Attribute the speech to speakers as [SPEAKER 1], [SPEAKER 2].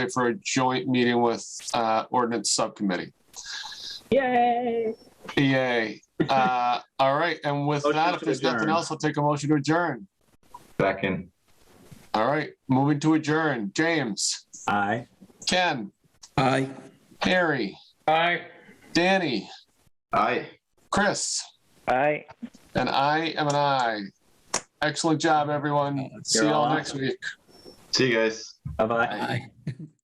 [SPEAKER 1] for a joint meeting with uh, ordinance subcommittee.
[SPEAKER 2] Yay.
[SPEAKER 1] Yay. Uh, all right. And with
[SPEAKER 3] Motion
[SPEAKER 1] that, if
[SPEAKER 3] to
[SPEAKER 1] there's nothing
[SPEAKER 3] adjourn.
[SPEAKER 1] else, I'll take a motion to adjourn.
[SPEAKER 4] Second.
[SPEAKER 1] All right. Moving to adjourn. James,
[SPEAKER 3] Aye.
[SPEAKER 1] Ken,
[SPEAKER 5] Aye.
[SPEAKER 1] Harry,
[SPEAKER 5] Aye.
[SPEAKER 1] Danny,
[SPEAKER 4] Aye.
[SPEAKER 1] Chris,
[SPEAKER 2] Bye.
[SPEAKER 1] and I am an I. Excellent job, everyone. See you all
[SPEAKER 3] awesome.
[SPEAKER 1] next week.
[SPEAKER 4] See you guys.
[SPEAKER 3] Bye-bye.
[SPEAKER 5] Aye.